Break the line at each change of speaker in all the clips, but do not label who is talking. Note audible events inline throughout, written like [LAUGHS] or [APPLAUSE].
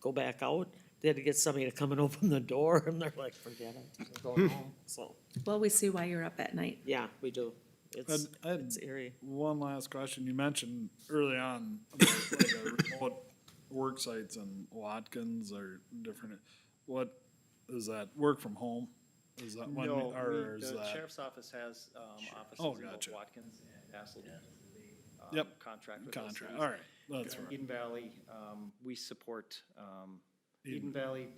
go back out. They had to get somebody to come and [LAUGHS] open the door and they're like, forget it, we're going home. So,
Well, we see why you're up at night.
yeah, we do. It's,
I'd- I'd-
it's eerie.
One last question. You mentioned early on, about, like, uh, remote work sites and Watkins are different. What is that? Work from home? Is that one, or
No, we- uh,
is
the
that?
sheriff's office has um,
Oh,
offices in both
gotcha.
Watkins and Castleton. um,
Yep.
Contract with those
Contract,
cities.
all right, that's
And
right.
Eden Valley, um, we support, um,
Eden.
Eden Valley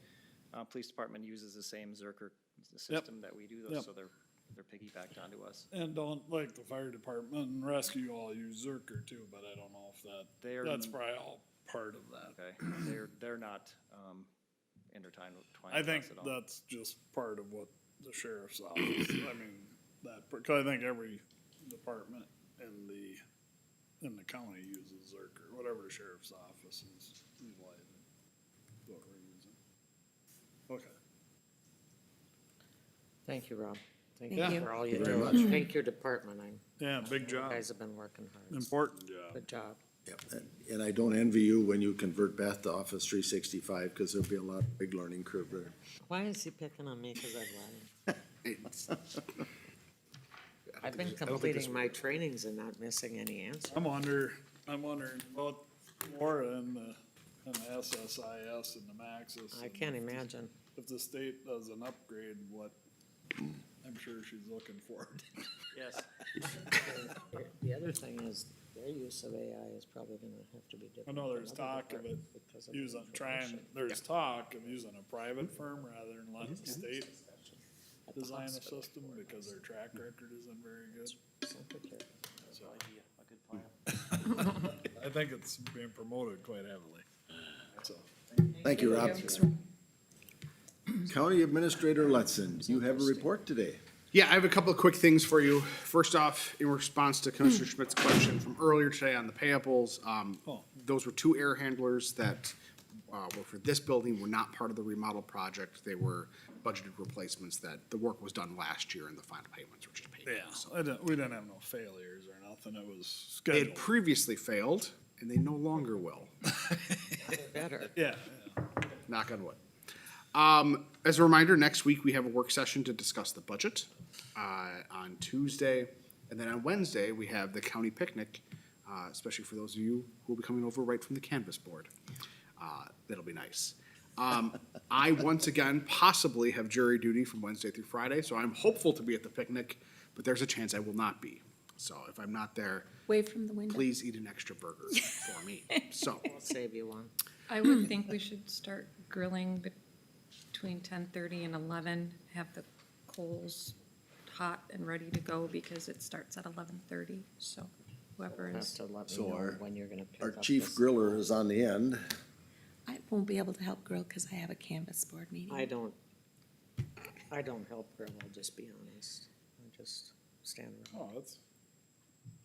uh, Police Department uses the same Zerker system that we do, though,
Yep.
so they're, they're piggybacked onto us.
And don't, like, the fire department and rescue all use Zerker too, but I don't know if that,
They're-
that's probably all part of that.
Okay, they're, they're not um, intertwined
I
twined with
think
us at all.
that's just part of what the sheriff's office, I mean, that, because I think every department in the, in the county uses Zerker, whatever sheriff's office is utilizing. is What we're using. Okay.
Thank you, Rob. Thank
Thank
you
you.
for all you
Very
do.
much.
Thank your department. I,
Yeah, big
you
job,
guys have been working hard.
important job.
Good job.
Yep, and- and I don't envy you when you convert Beth to Office three sixty-five, because there'll be a lot of big learning curve there.
Why is he picking on me? Cause I've lied. I've been
I don't think this-
completing my trainings and not missing any answers.
I'm under, I'm wondering about Laura and the, and the SSIS and the Maxis.
I
and
can't
if the-
imagine.
If the state does an upgrade, what, I'm sure she's looking for.
Yes,
And The other thing is, their use of AI is probably gonna have to be different.
I know
than
there's
other
talk of it
departments because of the
using, trying,
information.
there's talk of using a private firm rather than letting the state
At the
design a
hospital.
system because their track record isn't very good.
that's probably be a a good plan.
I think it's being promoted quite heavily, so.
Thank you, Rob. County Administrator Lutzen, you have a report today.
Yeah, I have a couple of quick things for you. First off, in response
[CLEARS THROAT]
to Commissioner Schmidt's question from earlier today on the payables, um,
Oh.
those were two air handlers that, uh, were for this building, were not part of the remodel project. They were budgeted replacements that the work was done last year and the final payments were just paid.
Yeah, I didn't, we didn't have no failures or nothing, it was
They had
scheduled.
previously failed and they no longer will.
Better.
Yeah,
knock on wood. Um, as a reminder, next week we have a work session to discuss the budget uh, on Tuesday. And then on Wednesday, we have the county picnic, uh, especially for those of you who will be coming over right from the canvas board. Uh, that'll be nice. Um, I once again possibly have jury duty from Wednesday through Friday, so I'm hopeful to be at the picnic, but there's a chance I will not be. So if I'm not there,
Wave from the window.
please eat an extra burger for me. So.
I'll save you one.
I would think we should start grilling between ten thirty and eleven, have the coals hot and ready to go because it starts at eleven thirty, so whoever
Have
is,
to let me
So
know
our-
when you're gonna pick
Our
up
chief
this-
griller is on the end.
I won't be able to help grill because I have a canvas board
I
meeting.
don't, I don't help her, I'll just be honest. I just stand around.
oh, that's,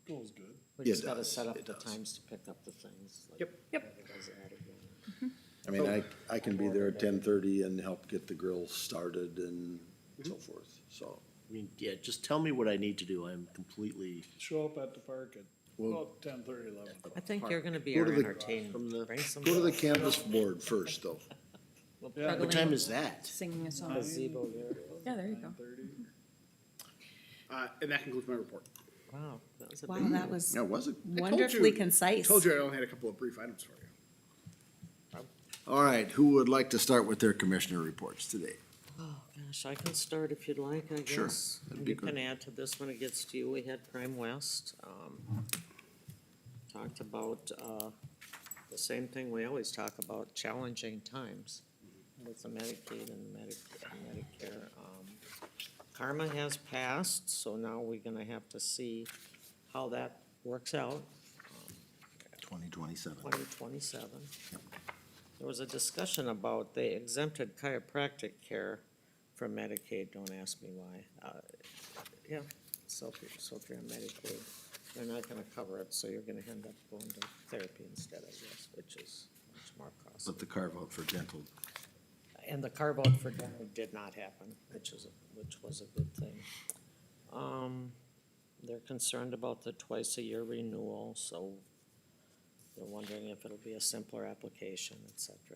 goes good.
We
It
just gotta
does,
set up
it
the
does.
times to pick up the things. like
Yep.
Yep.
whatever goes out of here.
I mean, I, I can be there at ten thirty and help get the grill started and so forth, so.
I mean, yeah, just tell me what I need to do. I'm completely,
Show up at the park at
Well-
about ten thirty, eleven o'clock.
I think you're gonna be
Go
our
to the-
from
entertainment.
the-
Bring some
Go to the
stuff.
canvas board first, though.
what time is that?
singing a song.
Gazebo there.
Yeah, there you go.
Uh, and that concludes my report.
Wow, that was a
Wow,
big-
that was
That was it.
I told
wonderfully
you- I
concise.
told you I only had a couple of brief items for you.
All right, who would like to start with their commissioner reports today?
Oh, gosh, I can start if you'd like, I
Sure,
guess.
that'd
And
be
You can
good.
add to this when it gets to you. We had Crime West. um, Talked about, uh, the same thing we always talk about, challenging times with the Medicaid and Medi- and Medicare. um, Karma has passed, so now we're gonna have to see how that works out.
Twenty twenty-seven.
twenty twenty-seven. There was a discussion about they exempted chiropractic care from Medicaid, don't ask me why. Uh, Yeah, so if you're, so if you're on Medicaid, they're not gonna cover it, so you're gonna end up going to therapy instead, I guess, which is much more costly.
But the carve out for dental
And the carve out for dental did not happen, which is, a- which was a good thing. Um, they're concerned about the twice a year renewal, so they're wondering if it'll be a simpler application, et cetera,